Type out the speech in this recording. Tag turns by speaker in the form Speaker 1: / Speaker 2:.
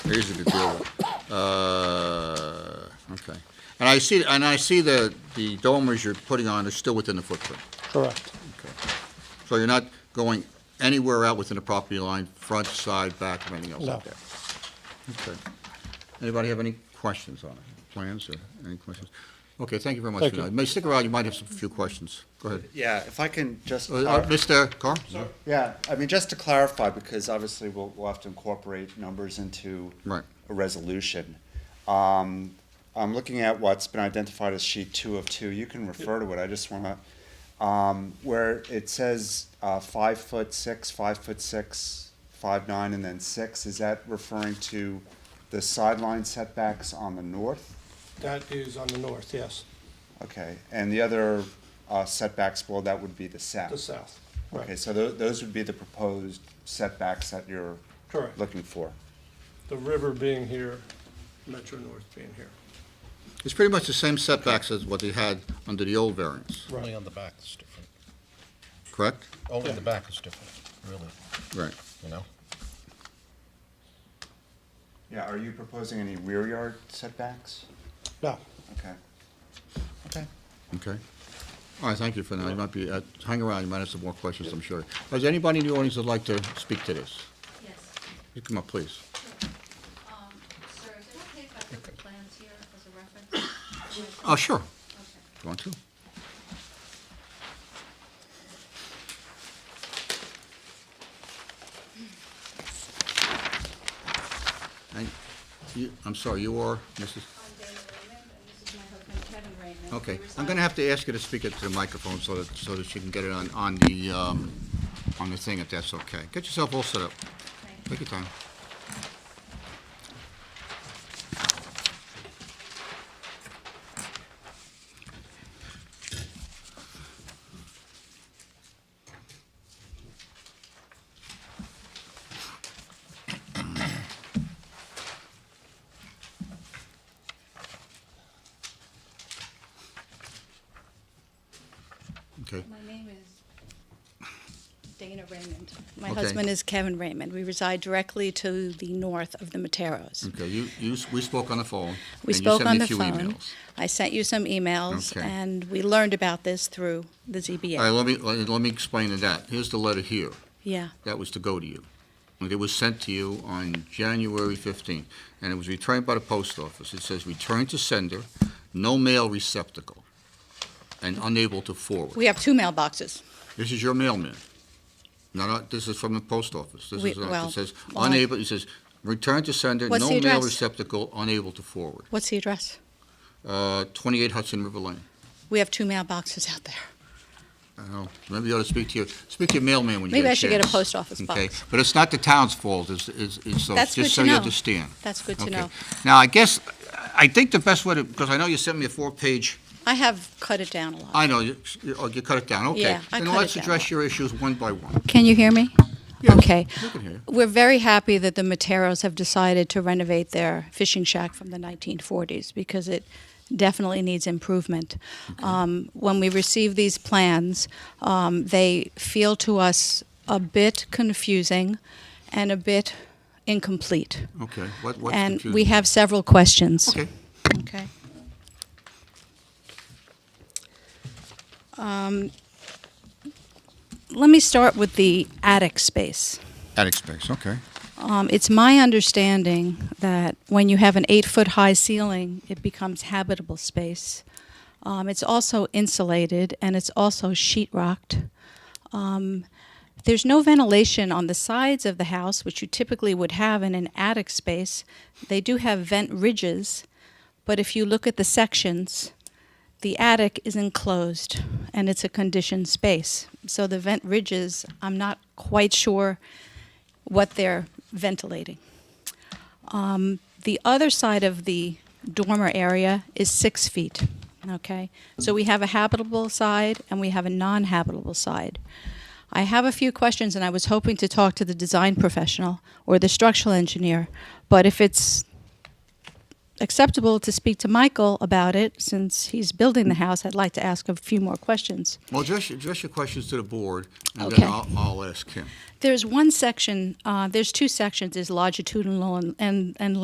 Speaker 1: easy to deal with. Uh, Okay. And I see, and I see the, the dormers you're putting on are still within the footprint.
Speaker 2: Correct.
Speaker 1: So you're not going anywhere out within the property line, front, side, back, or anything else
Speaker 2: No.
Speaker 1: out there? Okay. Anybody have any questions on it? Plans or any questions? Okay, thank you very much.
Speaker 2: Thank
Speaker 1: for
Speaker 2: you.
Speaker 1: that. May stick around, you might have some few questions. Go ahead.
Speaker 3: Yeah, if I can just,
Speaker 1: Uh, uh, Mr. Carr?
Speaker 3: yeah, I mean, just to clarify, because obviously we'll, we'll have to incorporate numbers into
Speaker 1: Right.
Speaker 3: a resolution. Um, I'm looking at what's been identified as sheet two of two. You can refer to it. I just want to, um, where it says, uh, five foot six, five foot six, five nine, and then six, is that referring to the sideline setbacks on the north?
Speaker 2: That is on the north, yes,
Speaker 3: Okay, and the other, uh, setbacks below that would be the south?
Speaker 2: the south.
Speaker 3: Okay,
Speaker 2: Right,
Speaker 3: so tho- those would be the proposed setbacks that you're
Speaker 2: correct.
Speaker 3: looking for?
Speaker 2: The river being here, Metro North being here.
Speaker 1: It's pretty much the same setbacks as what they had under the old variance,
Speaker 4: Only on the back is different.
Speaker 1: correct?
Speaker 4: Only
Speaker 2: Yeah.
Speaker 4: the back is different, really,
Speaker 1: Right.
Speaker 4: you know?
Speaker 3: Yeah, are you proposing any rear yard setbacks?
Speaker 2: No,
Speaker 3: Okay. Okay.
Speaker 1: Okay. All right, thank you for that. You might be, uh, hang around, you might have some more questions, I'm sure. Is there anybody in the audience that'd like to speak to this?
Speaker 5: Yes.
Speaker 1: You Come up, please.
Speaker 5: Um, Sir, is it okay if I put the plans here as a reference?
Speaker 1: Oh, sure.
Speaker 5: Okay.
Speaker 1: You want to? And you, I'm sorry, you are Mrs.?
Speaker 5: I'm Dana Raymond, and this is my husband Kevin Raymond.
Speaker 1: Okay,
Speaker 5: We
Speaker 1: I'm gonna
Speaker 5: reside-
Speaker 1: have to ask you to speak into the microphone so that, so that she can get it on, on the, um, on the thing, if that's okay. Get yourself all set up.
Speaker 5: Thank you.
Speaker 1: Take your time. Okay,
Speaker 5: My name is Dana Raymond. My
Speaker 1: Okay.
Speaker 5: husband is Kevin Raymond. We reside directly to the north of the Materos.
Speaker 1: okay, you, you, s- we spoke on the phone.
Speaker 5: We
Speaker 1: Mm. and you
Speaker 5: spoke
Speaker 1: sent me
Speaker 5: on
Speaker 1: a
Speaker 5: the
Speaker 1: few
Speaker 5: phone.
Speaker 1: emails.
Speaker 5: I sent you some emails,
Speaker 1: Okay.
Speaker 5: and we learned about this through the ZBA.
Speaker 1: All right, let me, let let me explain to that. Here's the letter here.
Speaker 5: Yeah,
Speaker 1: that was to go to you. And it was sent to you on January 15th, and it was returned by the post office. It says, "Return to sender, no mail receptacle, and unable to forward."
Speaker 5: we have two mailboxes.
Speaker 1: This is your mailman. No, no, this is from the post office. This
Speaker 5: We-
Speaker 1: is, uh,
Speaker 5: well,
Speaker 1: it says,
Speaker 5: well, I-
Speaker 1: unable, it says, "Return to sender,
Speaker 5: What's
Speaker 1: no
Speaker 5: the
Speaker 1: mail
Speaker 5: address?
Speaker 1: receptacle, unable to forward."
Speaker 5: What's the address?
Speaker 1: Uh, 28 Hudson River Lane.
Speaker 5: We have two mailboxes out there.
Speaker 1: I don't know. Oh, Maybe you ought to speak to your, speak to your mailman when you
Speaker 5: Maybe
Speaker 1: get a
Speaker 5: I should get a
Speaker 1: chance.
Speaker 5: post office
Speaker 1: Okay,
Speaker 5: box.
Speaker 1: but it's not the town's fault, it's, it's, it's, so-
Speaker 5: That's good
Speaker 1: just so
Speaker 5: to
Speaker 1: you
Speaker 5: know.
Speaker 1: understand.
Speaker 5: That's good to
Speaker 1: Okay.
Speaker 5: know.
Speaker 1: Now, I guess, I think the best way to, because I know you sent me a four-page,
Speaker 5: I have cut it down a lot.
Speaker 1: I know, you, you- oh, you cut it down, okay.
Speaker 5: Yeah, I
Speaker 1: Then
Speaker 5: cut it
Speaker 1: let's
Speaker 5: down.
Speaker 1: address your issues one by one.
Speaker 5: Can you hear me?
Speaker 1: Yes,
Speaker 5: Okay.
Speaker 1: we can hear you.
Speaker 5: We're very happy that the Materos have decided to renovate their fishing shack from the 1940s because it definitely needs improvement. Um, when we receive these plans, um, they feel to us a bit confusing and a bit incomplete.
Speaker 1: Okay, what, what's
Speaker 5: And
Speaker 1: confusing?
Speaker 5: we have several questions.
Speaker 1: Okay,
Speaker 5: Okay. Um, Let me start with the attic space.
Speaker 1: attic space, okay.
Speaker 5: Um, It's my understanding that when you have an eight-foot-high ceiling, it becomes habitable space. Um, It's also insulated, and it's also sheet rocked. Um, There's no ventilation on the sides of the house, which you typically would have in an attic space. They do have vent ridges, but if you look at the sections, the attic is enclosed and it's a conditioned space. So the vent ridges, I'm not quite sure what they're ventilating. Um, the other side of the dormer area is six feet. Okay, so we have a habitable side and we have a non habitable side. I have a few questions and I was hoping to talk to the design professional or the structural engineer, but if it's acceptable to speak to Michael about it since he's building the house, I'd like to ask a few more questions.
Speaker 1: Well, address, address your questions to the board, and
Speaker 5: Okay.
Speaker 1: then I'll, I'll ask him.
Speaker 5: There's one section, uh, there's two sections, there's longitudinal and, and, and